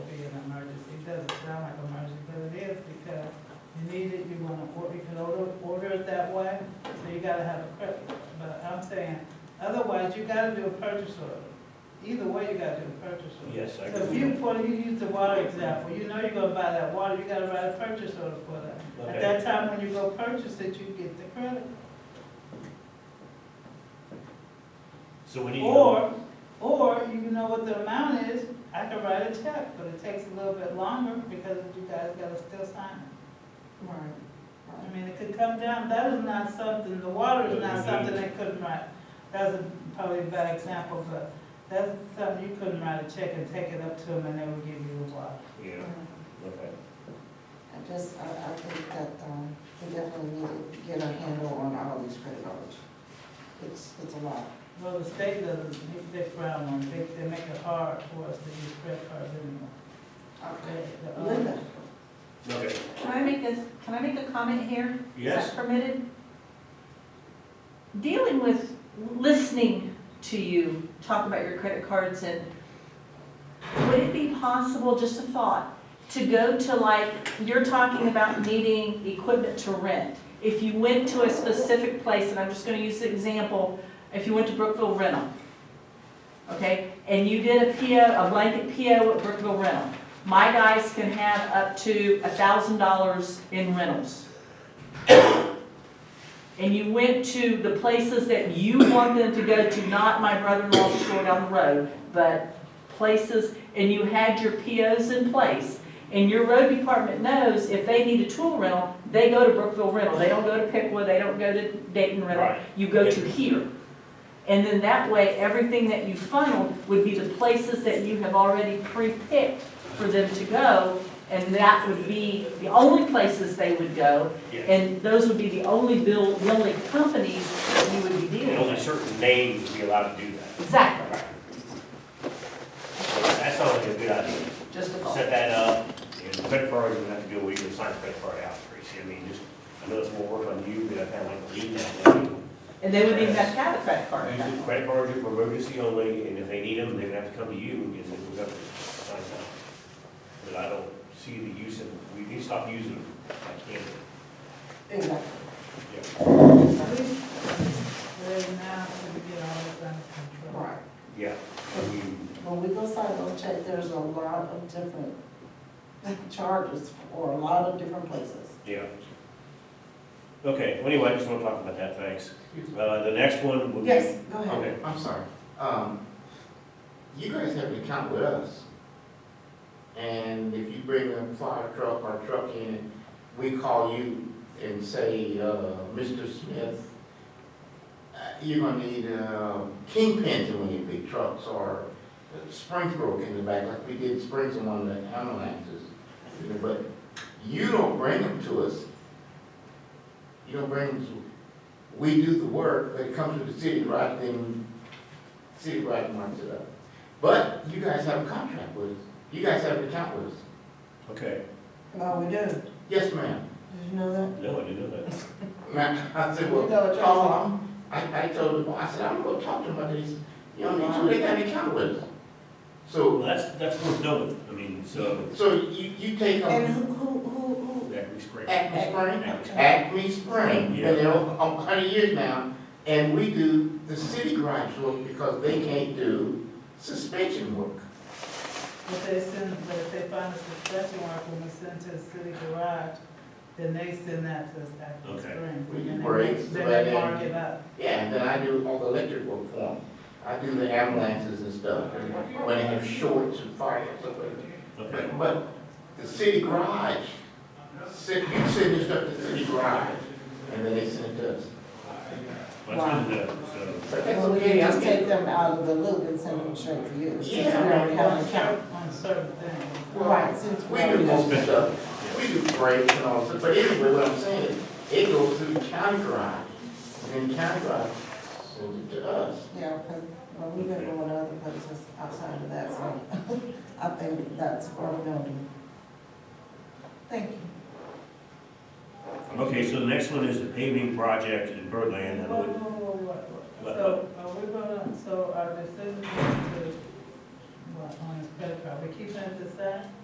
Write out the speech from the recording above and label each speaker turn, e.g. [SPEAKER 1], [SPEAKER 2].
[SPEAKER 1] But I'm saying, otherwise, you gotta do a purchase order. Either way, you gotta do a purchase order.
[SPEAKER 2] Yes, I
[SPEAKER 1] So if
[SPEAKER 2] agree.
[SPEAKER 1] you, for, you use the water example, you know you're gonna buy that water, you gotta write a purchase order for that. At
[SPEAKER 2] Okay.
[SPEAKER 1] that time, when you go purchase it, you get the credit.
[SPEAKER 2] So we need, to-
[SPEAKER 1] Or, or you know what the amount is, I can write a check, but it takes a little bit longer because you guys gotta still sign it.
[SPEAKER 3] Right.
[SPEAKER 1] I mean, it could come down, that is not something, the water is not
[SPEAKER 2] Mhm.
[SPEAKER 1] something they couldn't write. That's a- probably a bad example, but that's something you couldn't write a check and take it up to them and they would give you the water.
[SPEAKER 2] yeah, okay.
[SPEAKER 3] I just, I, I think that, um, we definitely need to get a handle on all these credit cards. It's, it's a lot.
[SPEAKER 1] Well, the state doesn't, they frown on, it. they, they make it hard for us to use credit cards anymore. They- the, uh,
[SPEAKER 4] Um,
[SPEAKER 3] Linda,
[SPEAKER 2] Okay,
[SPEAKER 5] Can I make this, can I make a comment here? Is
[SPEAKER 2] yes,
[SPEAKER 5] that permitted? Dealing with, listening to you talk about your credit cards and would it be possible, just a thought, to go to like, you're talking about needing equipment to rent. If you went to a specific place, and I'm just gonna use the example, if you went to Brookville Rental, okay? And you did a PO, a blanket PO at Brookville Rental. My guys can have up to a thousand dollars in rentals. And you went to the places that you want them to go to, not my brother-in-law's store down the road, but places, and you had your POs in place. And your road department knows if they need a tool rental, they go to Brookville Rental. They don't go to Pickwa, they don't go to Dayton Rental.
[SPEAKER 2] Right.
[SPEAKER 5] You go to here. And then that way, everything that you funneled would be the places that you have already pre-picked for them to go. And that would be the only places they would go.
[SPEAKER 2] yes.
[SPEAKER 5] And those would be the only bill, the only companies that you would be
[SPEAKER 2] And
[SPEAKER 5] dealing
[SPEAKER 2] only
[SPEAKER 5] with.
[SPEAKER 2] certain names would be allowed to do that.
[SPEAKER 5] Exactly,
[SPEAKER 2] So That sounds like a good idea.
[SPEAKER 5] just a thought.
[SPEAKER 2] Set that up, and credit card, you have to do a weekly sign credit card out, Tracy. I mean, just, I know it's more work on you, but I kind of like to leave that. I mean,
[SPEAKER 5] And they wouldn't even have to have a credit card.
[SPEAKER 2] Usually credit cards are for emergency only, and if they need them, they're gonna have to come to you, and then we're gonna sign them. But I don't see the use of, we need to stop using them, I can't.
[SPEAKER 3] exactly.
[SPEAKER 2] Yeah.
[SPEAKER 1] We- Right now, we get all this under control.
[SPEAKER 3] Right.
[SPEAKER 2] Yeah, I mean,
[SPEAKER 3] When we go sign those checks, there's a lot of different charges for a lot of different places.
[SPEAKER 2] yeah. Okay, well, anyway, I just wanna talk about that, thanks. Uh, the next one would be.
[SPEAKER 3] Yes, go ahead.
[SPEAKER 2] Okay,
[SPEAKER 4] I'm sorry. Um, you guys have an account with us. And if you bring a fire truck or truck in, we call you and say, uh, Mr. Smith, uh, you're gonna need, uh, kingpins in one of your big trucks or springs broke in the back, like we did springs in one of the ambulances. You know, But you don't bring them to us. You don't bring them to, we do the work, but it comes to the city, right, then city right marks it up. But you guys have a contract with us, you guys have an account with us.
[SPEAKER 2] okay,
[SPEAKER 3] No, Oh, we do. Did
[SPEAKER 4] Yes, ma'am.
[SPEAKER 3] you know that?
[SPEAKER 2] no, I didn't know that.
[SPEAKER 4] Now, I said,
[SPEAKER 3] You know
[SPEAKER 4] well,
[SPEAKER 3] what you're
[SPEAKER 4] oh, I'm- I, I told the boy, I said, I'm gonna talk to them about these, you know, they, they got an account with us.
[SPEAKER 2] Well,
[SPEAKER 4] So,
[SPEAKER 2] that's, that's worth knowing, I mean, so,
[SPEAKER 4] so you, you take
[SPEAKER 3] And
[SPEAKER 4] them,
[SPEAKER 3] who, who, who, who?
[SPEAKER 2] that was great.
[SPEAKER 4] Acme Spring,
[SPEAKER 2] Acme.
[SPEAKER 4] Acme Spring,
[SPEAKER 2] Yeah.
[SPEAKER 4] been there over a hundred years now, and we do the city garage work because they can't do suspension work.
[SPEAKER 1] If they send, but if they find a suspension work, when we send to the city garage, then they send that to us back to
[SPEAKER 2] Okay.
[SPEAKER 1] spring.
[SPEAKER 4] We
[SPEAKER 1] And
[SPEAKER 4] do
[SPEAKER 1] they-
[SPEAKER 4] brakes,
[SPEAKER 1] Then
[SPEAKER 4] but
[SPEAKER 1] they
[SPEAKER 4] then-
[SPEAKER 1] mark it up.
[SPEAKER 4] Yeah, and then I do all the electric work for them. I do the ambulances and stuff, and when they have shorts and fires.
[SPEAKER 2] Okay,
[SPEAKER 4] But, but the city garage, sit- you send your stuff to the city garage, and then they send it to us.
[SPEAKER 2] well, that's good to know, so.
[SPEAKER 4] But that's
[SPEAKER 3] Well, we can
[SPEAKER 4] okay, I'm
[SPEAKER 3] just take
[SPEAKER 4] getting.
[SPEAKER 3] them out of the loop and send them straight to you, since we
[SPEAKER 4] Yeah.
[SPEAKER 3] already have
[SPEAKER 1] On
[SPEAKER 3] an account.
[SPEAKER 1] certain, on certain things.
[SPEAKER 3] Right, since we
[SPEAKER 4] We do
[SPEAKER 3] already have.
[SPEAKER 4] most stuff, we do brakes and all, that. but anyway, what I'm saying, is, it goes through the county garage, and then county garage sends it to us.
[SPEAKER 3] Yeah, because, well, we've been going to other places outside of that, so I think that's where we're going to. do. Thank you.
[SPEAKER 2] Okay, so the next one is the paving project in Birdland.
[SPEAKER 1] Whoa, whoa,
[SPEAKER 2] and what-
[SPEAKER 1] whoa, whoa, whoa.
[SPEAKER 2] What-
[SPEAKER 1] So, are we gonna, so our decision is to, what, on this credit card, we keeping it the same?